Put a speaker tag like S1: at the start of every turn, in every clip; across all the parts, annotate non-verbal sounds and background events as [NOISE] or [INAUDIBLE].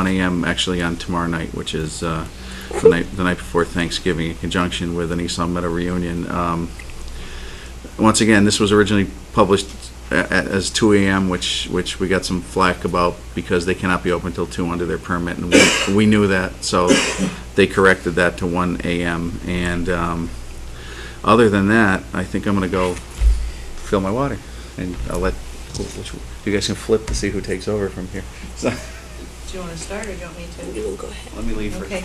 S1: 1 AM actually on tomorrow night, which is uh, the night, the night before Thanksgiving, in conjunction with an East Long Meadow reunion. Um, Once again, this was originally published a- a- as 2 AM, which, which we got some flack about because they cannot be open until 2 under their permit, and we- we knew that, so they corrected that to 1 AM. And um, other than that, I think I'm going to go fill my water, and I'll let, which- you guys can flip to see who takes over from here. [LAUGHS] So-
S2: Do you want to start or do you want me to?
S3: will go ahead.
S1: Let me leave for
S2: Okay.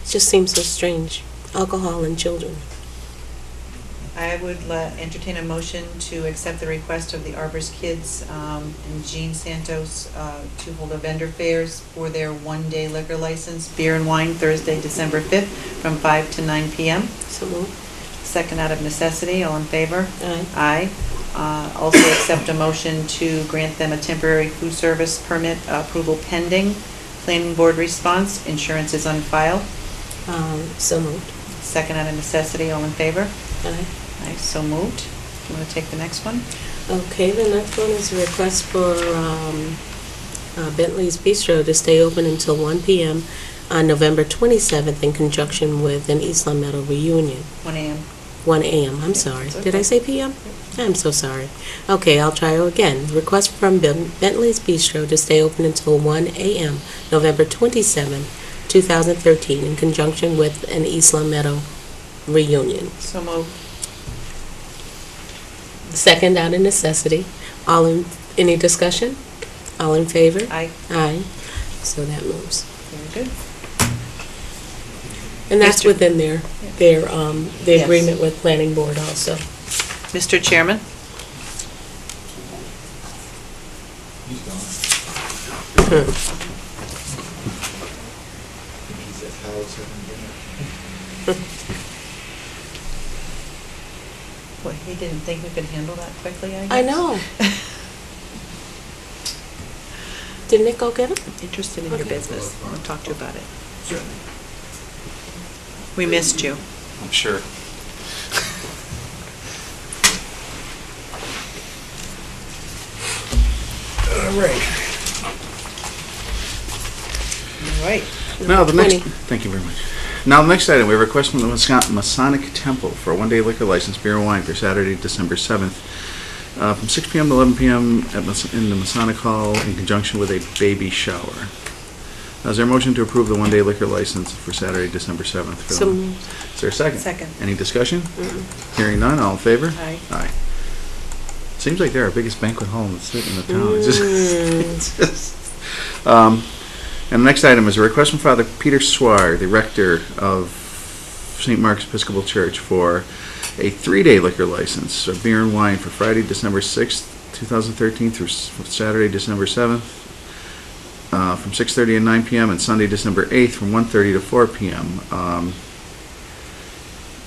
S3: It just seems so strange. Alcohol and children.
S2: I would la- entertain a motion to accept the request of the Arbor's Kids um, and Jean Santos uh, to hold a vendor fairs for their one-day liquor license, beer and wine, Thursday, December 5th, from 5 to 9 p.m.
S3: So move.
S2: Second out of necessity, all in favor?
S3: Aye.
S2: Aye. Uh, Also accept a motion to grant them a temporary food service permit approval pending, planning board response, insurance is on file.
S3: Um, so moved.
S2: Second out of necessity, all in favor?
S3: Aye.
S2: Aye, so moved. Do you want to take the next one?
S3: Okay, the next one is a request for um, uh, Bentley's Bistro to stay open until 1 PM on November 27th in conjunction with an East Long Meadow reunion.
S2: 1 AM.
S3: 1 AM, I'm sorry.
S2: It's
S3: Did I
S2: okay.
S3: say PM? I'm so sorry. Okay, I'll try again. Request from Ben- Bentley's Bistro to stay open until 1 AM, November 27, 2013, in conjunction with an Eastland Meadow reunion.
S2: So moved.
S3: Second out of necessity. All in, any discussion? All in favor?
S2: Aye,
S3: Aye. So that moves.
S2: very good.
S3: And that's
S2: Mr.
S3: within their,
S2: Yeah.
S3: their, um, the
S2: Yes.
S3: agreement with Planning Board also. [LAUGHS]
S2: Mr. Chairman?
S3: Hmm.
S4: He's at Howard's having dinner.
S2: Boy, he didn't think we could handle that quickly, I guess.
S3: I know. Did Nick go get
S2: [LAUGHS]
S3: it?
S2: Interested in your
S3: Okay.
S2: business. I'll talk to you about it. We missed you.
S1: I'm sure.
S4: All right.
S2: All right.
S1: No, the next,
S3: Twenty.
S1: thank you very much. Now, the next item, we have a request from the Wisconsin Masonic Temple for a one-day liquor license, beer and wine, for Saturday, December 7th, uh, from 6 PM to 11 PM at Mas- in the Masonic Hall in conjunction with a baby shower. Now, Is there a motion to approve the one-day liquor license for Saturday, December 7th? for
S3: So
S1: the-
S3: moved.
S1: Is there a second?
S2: Second.
S1: Any discussion? Hearing none, all in favor?
S2: Aye.
S1: Aye. Seems like they're our biggest banquet hall in the city, in the town. It's just-
S2: Mm.
S1: [LAUGHS] it's just- Um, And the next item is a request from Father Peter Swire, the rector of St. Mark's Episcopal Church, for a three-day liquor license of beer and wine for Friday, December 6th, 2013 through s- Saturday, December 7th, uh, from 6:30 and 9 PM, and Sunday, December 8th, from 1:30 to 4 PM. Um,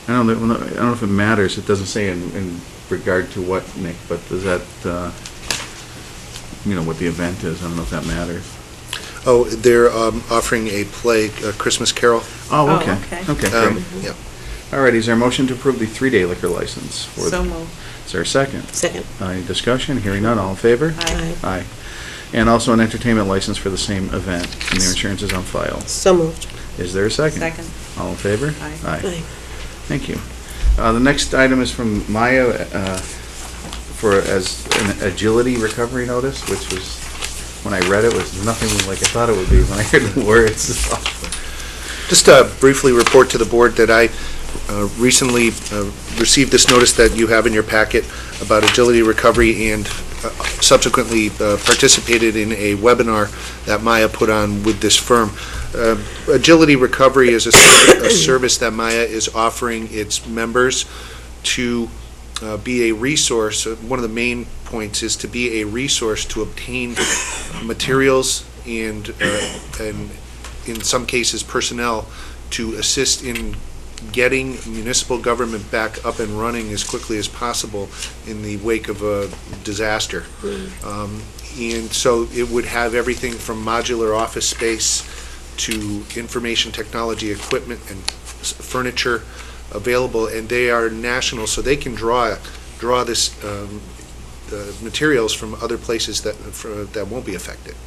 S1: I don't know, I don't know if it matters, it doesn't say in, in regard to what, Nick, but does that, uh, you know, what the event is, I don't know if that matters.
S4: Oh, they're um, offering a play, uh, Christmas Carol.
S2: Oh,
S1: Oh, okay,
S2: okay.
S1: okay,
S4: Um,
S1: great.
S4: Yeah.
S1: All right, is there a motion to approve the three-day liquor license? for-
S2: So moved.
S1: Is there a second?
S3: Second.
S1: Any discussion? Hearing none, all in favor?
S2: Aye.
S1: Aye. And also an entertainment license for the same event, and their insurance is on file.
S3: So moved.
S1: Is there a second?
S2: Second.
S1: All in favor?
S2: Aye.
S3: Aye.
S1: Thank you. Uh, The next item is from Maya uh, for, as an agility recovery notice, which was, when I read it, was nothing like I thought it would be when I heard the words. [LAUGHS]
S4: Just uh, briefly report to the board that I uh, recently uh, received this notice that you have in your packet about agility recovery and uh, subsequently uh, participated in a webinar that Maya put on with this firm. Uh, Agility recovery is a ser- a service that Maya is offering its members to uh, be a resource. Uh, One of the main points is to be a resource to obtain materials and, uh, and in some cases, personnel to assist in getting municipal government back up and running as quickly as possible in the wake of a disaster. Um, And so it would have everything from modular office space to information technology equipment and s- furniture available, and they are national, so they can draw, draw this um, uh, materials from other places that, for- that won't be affected.